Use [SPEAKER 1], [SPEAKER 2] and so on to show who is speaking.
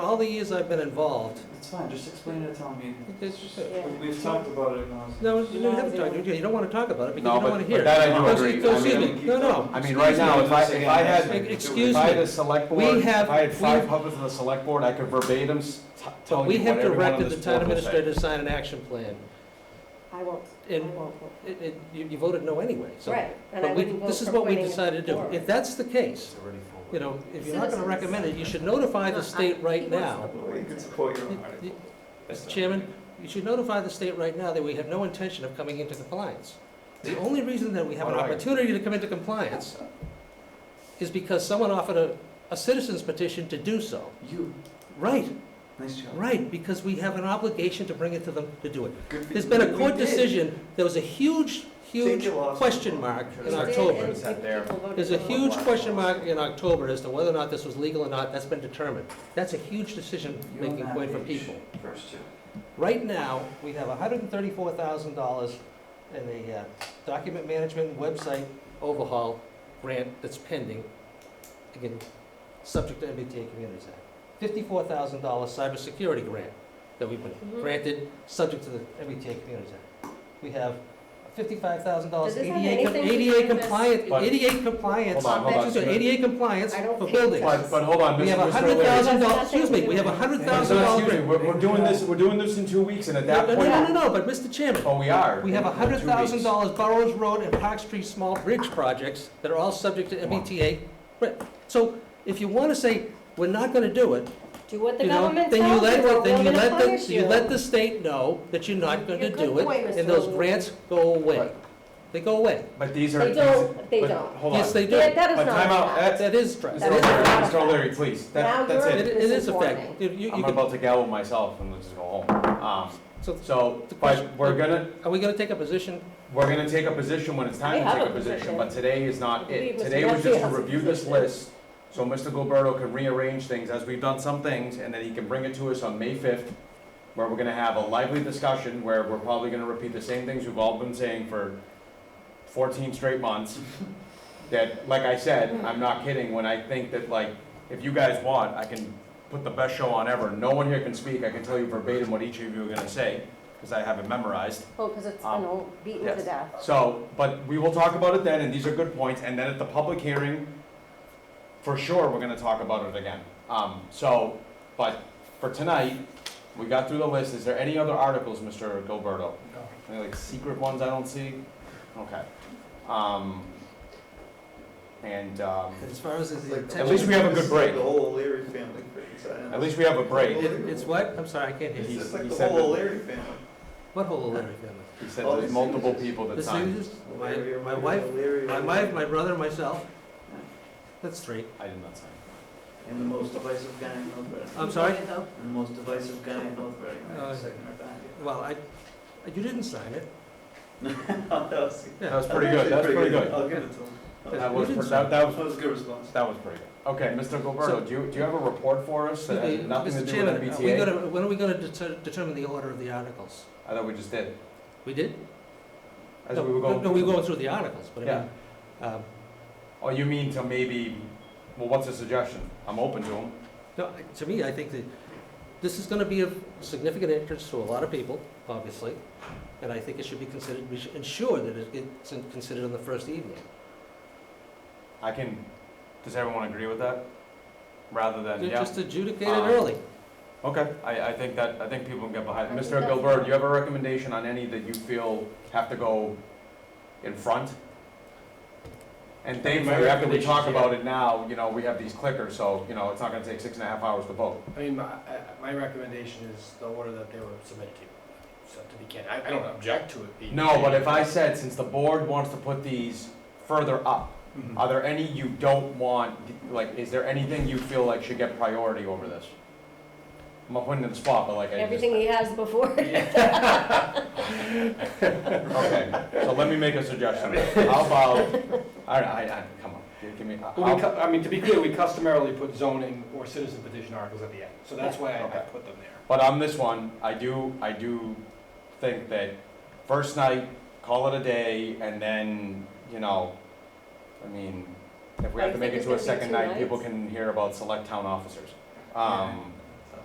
[SPEAKER 1] All the years I've been involved,
[SPEAKER 2] It's fine, just explain it at town meeting.
[SPEAKER 1] it's just,
[SPEAKER 3] Yeah.
[SPEAKER 2] We- We've talked about it now.
[SPEAKER 1] no, you don't have to talk, you don't want to talk about it because
[SPEAKER 4] No,
[SPEAKER 1] you don't
[SPEAKER 4] but-
[SPEAKER 1] want to
[SPEAKER 4] but
[SPEAKER 1] hear it.
[SPEAKER 4] that I do
[SPEAKER 1] Don't say-
[SPEAKER 4] agree.
[SPEAKER 1] don't
[SPEAKER 4] I
[SPEAKER 1] say
[SPEAKER 4] mean-
[SPEAKER 1] that. No, no.
[SPEAKER 4] I mean, right now, if I, if I had,
[SPEAKER 1] Excuse
[SPEAKER 4] if I
[SPEAKER 1] me.
[SPEAKER 4] had a select board,
[SPEAKER 1] We
[SPEAKER 4] if
[SPEAKER 1] have-
[SPEAKER 4] I had
[SPEAKER 1] we-
[SPEAKER 4] five puppets on the select board, I could verbatim s- t-
[SPEAKER 1] But
[SPEAKER 4] tell
[SPEAKER 1] we
[SPEAKER 4] you
[SPEAKER 1] have
[SPEAKER 4] what everyone on
[SPEAKER 1] directed the
[SPEAKER 4] this
[SPEAKER 1] town
[SPEAKER 4] board will say.
[SPEAKER 1] administrator to sign an action plan.
[SPEAKER 3] I won't, I
[SPEAKER 1] And-
[SPEAKER 3] won't vote.
[SPEAKER 1] It, it, you you voted no anyway, so.
[SPEAKER 3] Right, and I
[SPEAKER 1] But we,
[SPEAKER 3] wouldn't vote
[SPEAKER 1] this is
[SPEAKER 3] for
[SPEAKER 1] what we
[SPEAKER 3] putting it
[SPEAKER 1] decided to do.
[SPEAKER 3] forward.
[SPEAKER 1] If that's the case,
[SPEAKER 4] already
[SPEAKER 1] you know, if you're not going to
[SPEAKER 3] Citizens.
[SPEAKER 1] recommend it, you should notify the state right now.
[SPEAKER 2] Well, you can support your own
[SPEAKER 1] You-
[SPEAKER 2] article.
[SPEAKER 1] Mr. Chairman? You should notify the state right now that we have no intention of coming into compliance. The only reason that we have an
[SPEAKER 4] Why?
[SPEAKER 1] opportunity to come into compliance is because someone offered a, a citizen's petition to do so.
[SPEAKER 2] You,
[SPEAKER 1] Right,
[SPEAKER 2] nice job.
[SPEAKER 1] right, because we have an obligation to bring it to them to do it.
[SPEAKER 2] Good for
[SPEAKER 1] There's
[SPEAKER 2] you.
[SPEAKER 1] been
[SPEAKER 2] We-
[SPEAKER 1] a
[SPEAKER 2] we
[SPEAKER 1] court
[SPEAKER 2] did.
[SPEAKER 1] decision, there was a huge, huge
[SPEAKER 2] Take it off.
[SPEAKER 1] question mark in
[SPEAKER 3] They did,
[SPEAKER 1] October.
[SPEAKER 3] and
[SPEAKER 4] Is that there?
[SPEAKER 3] people voted
[SPEAKER 1] There's a
[SPEAKER 3] no.
[SPEAKER 1] huge question mark in October as to whether or not this was legal or not, that's been determined. That's a huge
[SPEAKER 2] You're on
[SPEAKER 1] decision-making
[SPEAKER 2] that
[SPEAKER 1] point for
[SPEAKER 2] page,
[SPEAKER 1] people.
[SPEAKER 2] First two.
[SPEAKER 1] Right now, we have hundred and thirty-four thousand dollars in a uh, document management website overhaul grant that's pending, again, subject to MBTA Communities Act. Fifty-four thousand dollar cybersecurity grant that we've been
[SPEAKER 3] Mhm.
[SPEAKER 1] granted, subject to the MBTA Communities Act. We have fifty-five thousand dollars
[SPEAKER 3] Does this have
[SPEAKER 1] ADA, com-
[SPEAKER 3] anything to
[SPEAKER 1] ADA
[SPEAKER 3] do with
[SPEAKER 1] compliant,
[SPEAKER 4] But-
[SPEAKER 1] ADA compliance,
[SPEAKER 4] Hold on, hold on,
[SPEAKER 1] excuse me,
[SPEAKER 4] Smith.
[SPEAKER 1] ADA compliance
[SPEAKER 3] I don't
[SPEAKER 1] for
[SPEAKER 3] think it
[SPEAKER 1] buildings.
[SPEAKER 4] But, but hold on,
[SPEAKER 1] We
[SPEAKER 4] Mr.
[SPEAKER 1] have
[SPEAKER 4] Mr.
[SPEAKER 1] hundred
[SPEAKER 4] O'Leary.
[SPEAKER 1] thousand dollars,
[SPEAKER 3] That's nothing
[SPEAKER 1] excuse
[SPEAKER 3] to
[SPEAKER 1] me,
[SPEAKER 3] do
[SPEAKER 1] we have a
[SPEAKER 3] with it.
[SPEAKER 1] hundred
[SPEAKER 4] Mr.
[SPEAKER 1] thousand dollar
[SPEAKER 4] Excuse me,
[SPEAKER 1] grant.
[SPEAKER 4] we're, we're doing this, we're doing this in two weeks, and at
[SPEAKER 1] No,
[SPEAKER 4] that
[SPEAKER 1] no,
[SPEAKER 4] point,
[SPEAKER 1] no, no, no, but Mr. Chairman,
[SPEAKER 4] oh, we are.
[SPEAKER 1] we have
[SPEAKER 4] in two
[SPEAKER 1] hundred thousand
[SPEAKER 4] weeks.
[SPEAKER 1] dollars Burrows Road and Park Street small bridge projects that are all subject to
[SPEAKER 4] Come on.
[SPEAKER 1] MBTA. Right, so if you wanna say, we're not gonna do it,
[SPEAKER 3] Do what the
[SPEAKER 1] you know,
[SPEAKER 3] government
[SPEAKER 1] then
[SPEAKER 3] tells you,
[SPEAKER 1] you let,
[SPEAKER 3] or
[SPEAKER 1] the- then you
[SPEAKER 3] we're gonna
[SPEAKER 1] let,
[SPEAKER 3] punish
[SPEAKER 1] the
[SPEAKER 3] you.
[SPEAKER 1] you let the state know that you're not
[SPEAKER 3] You're
[SPEAKER 1] gonna
[SPEAKER 3] good
[SPEAKER 1] do
[SPEAKER 3] boy,
[SPEAKER 1] it,
[SPEAKER 3] Mr.
[SPEAKER 1] and those
[SPEAKER 3] O'Leary.
[SPEAKER 1] grants go away.
[SPEAKER 4] Right.
[SPEAKER 1] They go away.
[SPEAKER 4] But these are.
[SPEAKER 3] They don't, they
[SPEAKER 4] but-
[SPEAKER 3] don't.
[SPEAKER 4] Hold on.
[SPEAKER 1] Yes, they do.
[SPEAKER 3] Yeah, That is
[SPEAKER 4] But
[SPEAKER 3] not
[SPEAKER 4] time out,
[SPEAKER 3] allowed.
[SPEAKER 4] that's,
[SPEAKER 1] That is,
[SPEAKER 4] Mr.
[SPEAKER 1] right.
[SPEAKER 3] That
[SPEAKER 1] it
[SPEAKER 3] is
[SPEAKER 4] O'Leary,
[SPEAKER 3] not a
[SPEAKER 4] Mr. O'Leary, please,
[SPEAKER 3] Now
[SPEAKER 4] that, that's
[SPEAKER 3] you're-
[SPEAKER 4] it.
[SPEAKER 1] it is a fact.
[SPEAKER 3] Misinforming.
[SPEAKER 1] You- you-
[SPEAKER 4] I'm
[SPEAKER 1] you can-
[SPEAKER 4] about to gavel myself and let's just go home. Um,
[SPEAKER 1] so
[SPEAKER 4] so,
[SPEAKER 1] The question-
[SPEAKER 4] but we're gonna,
[SPEAKER 1] Are we gonna take a position?
[SPEAKER 4] We're gonna take a position when it's
[SPEAKER 3] We
[SPEAKER 4] time to
[SPEAKER 3] have
[SPEAKER 4] take
[SPEAKER 3] a
[SPEAKER 4] a position,
[SPEAKER 3] position.
[SPEAKER 4] but today is not
[SPEAKER 3] We
[SPEAKER 4] it.
[SPEAKER 3] was-
[SPEAKER 4] Today was
[SPEAKER 3] yes,
[SPEAKER 4] just to
[SPEAKER 3] yes.
[SPEAKER 4] review this list, so Mr. Gilberto can rearrange things, as we've done some things, and then he can bring it to us on May fifth, where we're gonna have a lively discussion, where we're probably gonna repeat the same things we've all been saying for fourteen straight months. That, like I
[SPEAKER 3] Mm-hmm.
[SPEAKER 4] said, I'm not kidding, when I think that, like, if you guys want, I can put the best show on ever. No one here can speak, I can tell you verbatim what each of you are gonna say, because I have it memorized.
[SPEAKER 3] Oh, because it's
[SPEAKER 4] Um,
[SPEAKER 3] been all beaten to
[SPEAKER 4] yes.
[SPEAKER 3] death.
[SPEAKER 4] So, but we will talk about it then, and these are good points, and then at the public hearing, for sure, we're gonna talk about it again. Um, so, but for tonight, we got through the list, is there any other articles, Mr. Gilberto? Any like secret ones I don't see? Okay. Um, and, um,
[SPEAKER 1] As far as the
[SPEAKER 4] At least we have a good break.
[SPEAKER 2] The whole O'Leary family brings that in.
[SPEAKER 4] at least we have a break.
[SPEAKER 1] It's what? I'm sorry, I can't hear
[SPEAKER 2] It's
[SPEAKER 1] you.
[SPEAKER 2] just
[SPEAKER 4] he
[SPEAKER 2] like the
[SPEAKER 4] said
[SPEAKER 2] whole
[SPEAKER 4] that-
[SPEAKER 2] O'Leary family.
[SPEAKER 1] What whole O'Leary family?
[SPEAKER 4] He said there's multiple people that
[SPEAKER 1] This
[SPEAKER 4] signed.
[SPEAKER 1] is, my,
[SPEAKER 2] O'Leary,
[SPEAKER 1] my
[SPEAKER 2] O'Leary,
[SPEAKER 1] wife,
[SPEAKER 2] O'Leary,
[SPEAKER 1] my
[SPEAKER 2] O'Leary.
[SPEAKER 1] wife, my brother, myself. That's three.
[SPEAKER 4] I did not sign.
[SPEAKER 2] And the most divisive guy in North Reading.
[SPEAKER 1] I'm sorry?
[SPEAKER 2] And the most divisive guy in North Reading,
[SPEAKER 1] Uh,
[SPEAKER 2] right, second or back.
[SPEAKER 1] Well, I, you didn't sign it.
[SPEAKER 2] That was-
[SPEAKER 4] That was
[SPEAKER 2] that's
[SPEAKER 4] pretty good,
[SPEAKER 2] actually
[SPEAKER 4] that's pretty good. Uh,
[SPEAKER 2] I'll give it to him.
[SPEAKER 4] That
[SPEAKER 1] You
[SPEAKER 4] was,
[SPEAKER 1] didn't
[SPEAKER 4] that, that was
[SPEAKER 2] That was a good response.
[SPEAKER 4] That was pretty good. Okay, Mr. Gilberto, do you, do you have a report for us that has uh, nothing to
[SPEAKER 1] Mr.
[SPEAKER 4] do with
[SPEAKER 1] Chairman, are we
[SPEAKER 4] MBTA?
[SPEAKER 1] gonna, when are we gonna deter- determine the order of the articles?
[SPEAKER 4] I thought we just did,
[SPEAKER 1] We did?
[SPEAKER 4] as
[SPEAKER 1] No,
[SPEAKER 4] we were going.
[SPEAKER 1] No, we were going through the articles, but I mean, um,
[SPEAKER 4] Oh, you mean to maybe, well, what's a suggestion? I'm open to them.
[SPEAKER 1] no, I- to me, I think that this is gonna be of significant interest to a lot of people, obviously. And I think it should be considered, we should ensure that it- it's considered on the first evening.
[SPEAKER 4] I can, does everyone agree with that? Rather than, yeah,
[SPEAKER 1] Just adjudicate it
[SPEAKER 4] Um,
[SPEAKER 1] early.
[SPEAKER 4] okay, I, I think that, I think people can get behind.
[SPEAKER 3] I
[SPEAKER 4] it.
[SPEAKER 3] think
[SPEAKER 4] Mr.
[SPEAKER 3] that's
[SPEAKER 4] Gilberto,
[SPEAKER 3] fine.
[SPEAKER 4] do you have a recommendation on any that you feel have to go in front? And thankfully, after we talk
[SPEAKER 5] recommendation is, yeah.
[SPEAKER 4] about it now, you know, we have these clickers, so, you know, it's not gonna take six and a half hours to vote.
[SPEAKER 5] I mean, my, I- my recommendation is the order that they were submitted to, so to be candid, I, I don't object to it being.
[SPEAKER 4] No, but if I said, since the board wants to put these further up,
[SPEAKER 5] Mhm.
[SPEAKER 4] are there any you don't want, like, is there anything you feel like should get priority over this? I'm not putting you in the spot, but like, I just.
[SPEAKER 3] Everything he has before.
[SPEAKER 4] Okay, so let me make a suggestion. How about, all right, I, I, come on, give- give me,
[SPEAKER 5] Well, we,
[SPEAKER 4] I'll,
[SPEAKER 5] cu- I mean, to be clear, we customarily put zoning or citizen petition articles at the end, so that's why I, I
[SPEAKER 4] Okay.
[SPEAKER 5] put them there.
[SPEAKER 4] but on this one, I do, I do think that first night, call it a day, and then, you know, I mean, if we have
[SPEAKER 3] I
[SPEAKER 4] to make
[SPEAKER 3] think
[SPEAKER 4] it
[SPEAKER 3] it's
[SPEAKER 4] to a
[SPEAKER 3] gonna be
[SPEAKER 4] second
[SPEAKER 3] two
[SPEAKER 4] night, people
[SPEAKER 3] nights.
[SPEAKER 4] can hear about select town officers. Um,